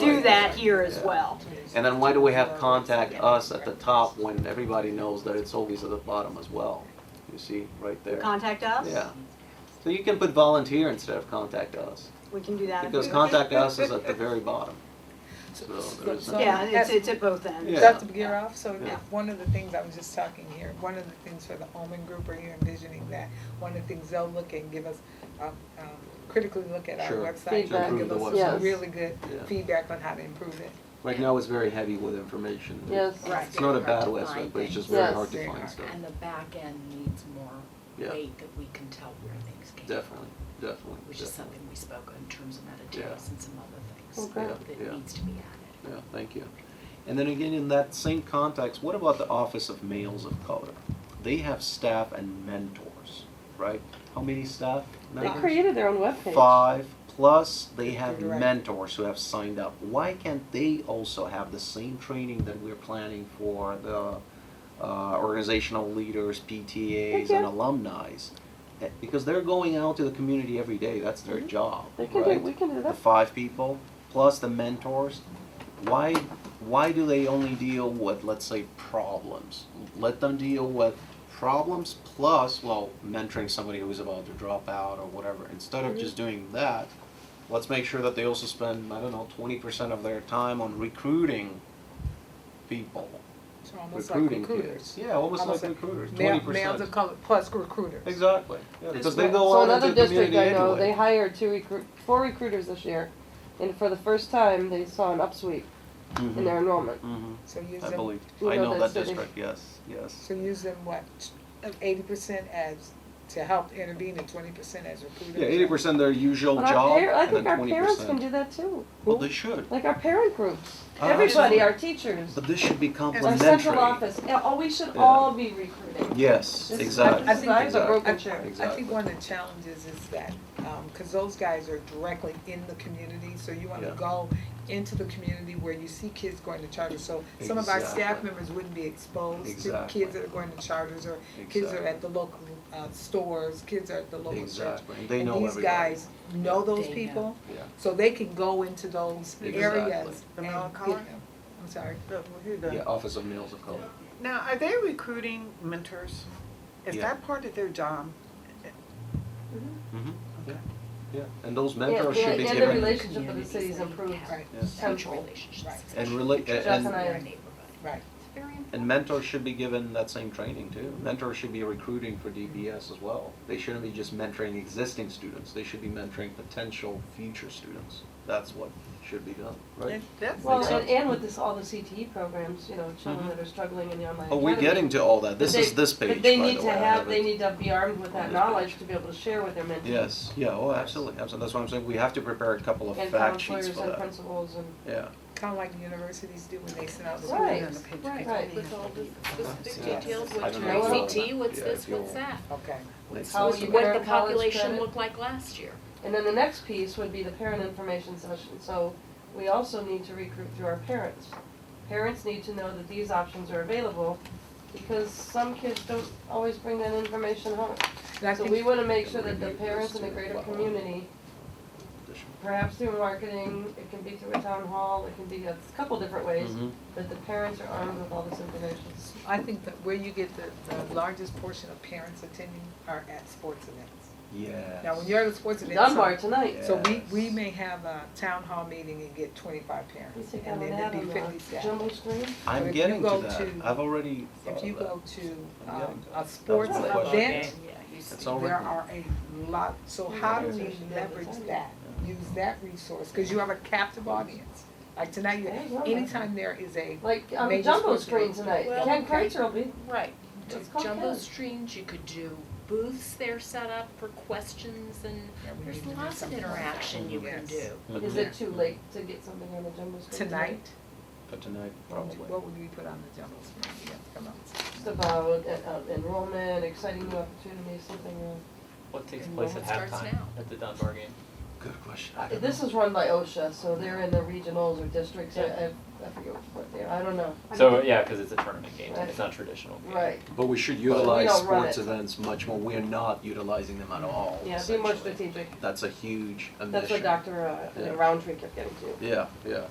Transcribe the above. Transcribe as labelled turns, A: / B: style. A: do that here as well.
B: And then why do we have contact us at the top when everybody knows that it's always at the bottom as well? You see, right there.
A: Contact us?
B: Yeah. So you can put volunteer instead of contact us,
A: We can do that.
B: because contact us is at the very bottom. So there is,
C: So-
A: Yeah, it's, it's at both ends.
B: Yeah.
C: Dr. Buroff, so
B: Yeah.
C: if one of the things, I was just talking here, one of the things for the Omen Group, or you're envisioning that, one of the things they'll look at, give us, um, um, critically look at our
B: Sure.
C: website,
B: Feedback.
C: they'll give
B: To
C: us
B: improve
C: some
B: the
D: website. Yes.
C: really good
B: Yeah.
C: feedback on how to improve it.
B: right now it's very heavy with information.
D: Yes.
C: Right.
B: It's not a bad website, but it's just very
D: Yes.
B: hard to
C: Very
B: find
C: hard.
B: stuff.
E: And the back end needs more
B: Yeah.
E: weight that we can tell where things came from.
B: Definitely, definitely,
E: Which is
B: definitely.
E: something we spoke on in terms of
B: Yeah.
E: metadata and some other things
D: Okay.
E: that-
B: Yeah, yeah.
E: that needs to be added.
B: Yeah, thank you. And then again, in that same context, what about the Office of Males of Color? They have staff and mentors, right? How many staff
D: They
B: members?
D: created their own webpage.
B: Five, plus they have
C: You're right.
B: mentors who have signed up. Why can't they also have the same training that we're planning for the uh, organizational leaders, PTAs, and
D: Yeah.
B: alumni? Because they're going out to the community every day, that's their job,
D: Mm-hmm. They can do,
B: right?
D: we can do
B: the
D: that.
B: five people plus the mentors why why do they only deal with let's say problems let them deal with problems plus well mentoring somebody who's about to drop out or whatever instead of just doing that let's make sure that they also spend i don't know 20% of their time on recruiting people
C: So almost like
B: recruiting
C: recruiters.
B: kids yeah almost,
C: Almost
B: like
C: like
B: recruiters 20%
C: Male- Males of color plus recruiters.
B: exactly yeah, because they
C: right.
B: go
D: So
B: out
D: another
B: into the
D: district
B: community
D: I know,
B: anyway.
D: they hired two recruit, four recruiters this year, and for the first time, they saw an upsweep
B: Mhm,
D: in their enrollment.
B: mhm,
C: So use
B: i
C: them,
B: believe
D: You
B: i
D: know
B: know
D: that
B: that
D: city.
B: district yes yes
C: so use them what, eighty percent as, to help intervene and twenty percent as recruiters?
B: Yeah, eighty percent their usual
D: But
B: Oh, job,
D: our par- I
B: and
D: think
B: then
D: our
B: twenty
D: parents can
B: percent.
D: do that too.
B: Well, they should,
D: Like our parent groups,
B: Uh,
D: everybody,
B: absolutely.
D: our teachers,
B: but this should be
D: our
B: complementary.
D: central office, yeah, oh, we should
B: Yeah.
D: all be recruiting.
B: Yes,
D: This is-
B: exactly.
C: I think-
D: I have a
B: exactly.
D: broken chair.
C: I think one of the challenges is that, um, cause those guys are directly in the community, so you wanna
B: Yeah.
C: go into the community where you see kids going to charters, so some of our staff
B: Exactly.
C: members wouldn't be exposed to
B: Exactly.
C: kids that are going to charters, or kids that are at the local, uh, stores, kids are at the local church.
B: Exactly, and they know
C: And these
B: everybody.
C: guys know those
E: They
C: people,
B: Yeah.
C: so they can go into those
B: Exactly.
C: areas
F: The
C: and
F: male
C: get
F: collar?
C: them, I'm sorry.
F: No, you're done.
B: Yeah, Office of Males of Color.
F: Now, are they recruiting mentors? Is
B: Yeah.
F: that part of their job?
B: Mm-hmm. Yeah,
F: Okay.
B: yeah, and those
D: Yeah,
B: mentors should be
D: and
B: given.
D: the relationship with the
E: Communities
D: city's
E: that
D: improved.
E: have
C: Right.
B: Yeah.
E: Huge
D: Tenfold.
E: relationships.
C: Right.
B: And rela-
E: Just
B: and-
E: in our
D: and-
E: neighborhood.
C: Right.
E: It's very important.
B: And mentors should be given that same training too. Mentors should be recruiting for DPS as well. They shouldn't be just mentoring existing students, they should be mentoring potential future students. That's what should be done, right?
F: And that's-
D: Well,
B: Makes
D: and,
B: sense.
D: and with this, all the CTE programs, you know, children that are struggling in the online
B: Mm-hmm. Oh, we're
D: academy.
B: getting to all that.
D: But
B: This is
D: they-
B: this page,
D: But they
B: by
D: need
B: the
D: to
B: way. I
D: have,
B: it.
D: they need to be armed with that
B: this
D: knowledge to be able to share with their mentors.
B: Yes, yeah, oh, absolutely, absolutely. That's what I'm saying. We have to prepare a couple of
D: And
B: fact sheets
D: counselors
B: for
D: and
B: that.
D: principals and,
B: Yeah,
C: Kinda like the universities do when they send out the
D: Right,
C: on the page.
D: right,
G: With all the specific
C: Yeah.
G: details,
B: I
G: what's
B: don't
G: your
D: know.
G: ACT, what's
B: Yeah,
G: this,
B: if you'll-
G: what's that?
C: Okay.
B: makes
D: How
B: sense.
D: you
G: What the
D: Parent college
G: population
D: credit.
G: looked like last year.
D: and then the next piece would be the parent information session, so we also need to recruit through our parents. Parents need to know that these options are available, because some kids don't always bring that information home.
C: And I
D: So
C: think-
D: we wanna make sure that the parents in the greater community perhaps through marketing, it can be through a town hall, it can be a couple different ways,
B: Mhm.
D: but the parents are armed with all this information.
C: I think that where you get the, the largest portion of parents attending are at sports events.
B: Yes.
C: Now, when you're at a sports event,
D: Dunbar tonight.
C: so, so we,
B: Yes.
C: we may have a town hall meeting and get twenty-five
D: You
C: parents,
D: take
C: and
D: out
C: then
D: an
C: there'd
D: ad
C: be
D: on
C: fifty
D: the
C: staff.
D: jumbo screen.
C: if
B: I'm
C: you
B: getting
C: go
B: to
C: to-
B: that. I've already thought
C: If you
B: of that.
C: go to,
B: I'm
C: um,
B: getting
C: a
B: That was
C: sports
B: my
C: event,
B: question.
E: Yeah, you see.
B: It's all
C: There
B: written.
C: are a lot, so how do
B: Yeah.
C: we leverage that, use that resource, cause you have a captive audience. Like tonight, you,
D: Yeah, well,
C: anytime there is a,
D: Like on the
C: Major
D: jumbo
C: sports
D: screen
C: event.
D: tonight.
G: Well,
D: Ken
G: okay.
D: Kreitzer will be.
G: Right.
D: It's called
G: Jumbo
D: that.
G: streams, you could do booths there set up for questions and
C: Yeah, we need
G: there's
C: to do
G: lots of
C: something like
G: interaction you can
C: Yes.
G: do.
B: Mhm.
D: Is it too late to get something on the jumbo screen tonight?
C: tonight,
B: But tonight,
C: what would-
B: probably.
C: what would we put on the jumbo screen? Yeah, come on.
D: Just about uh, uh, enrollment, exciting new opportunities, something. uh,
H: What takes place at
G: Enrollment starts
H: halftime
G: now.
H: at the Dunbar game?
B: Good question. I don't
D: This
B: know.
D: is run by OSHA, so they're in the regionals or districts. I, I, I forget what they are. I don't know.
H: So, yeah, because it's a tournament game,
D: Right.
H: it's not traditional game.
D: Right.
B: But we should
D: don't
B: utilize
D: run
B: sports
D: it.
B: events much more. We're not utilizing them at all,
D: Yeah, be more
B: essentially.
D: strategic.
B: That's a huge omission.
D: That's what Dr. uh,
B: Yeah.
D: Roundtree kept getting to.
B: Yeah, yeah,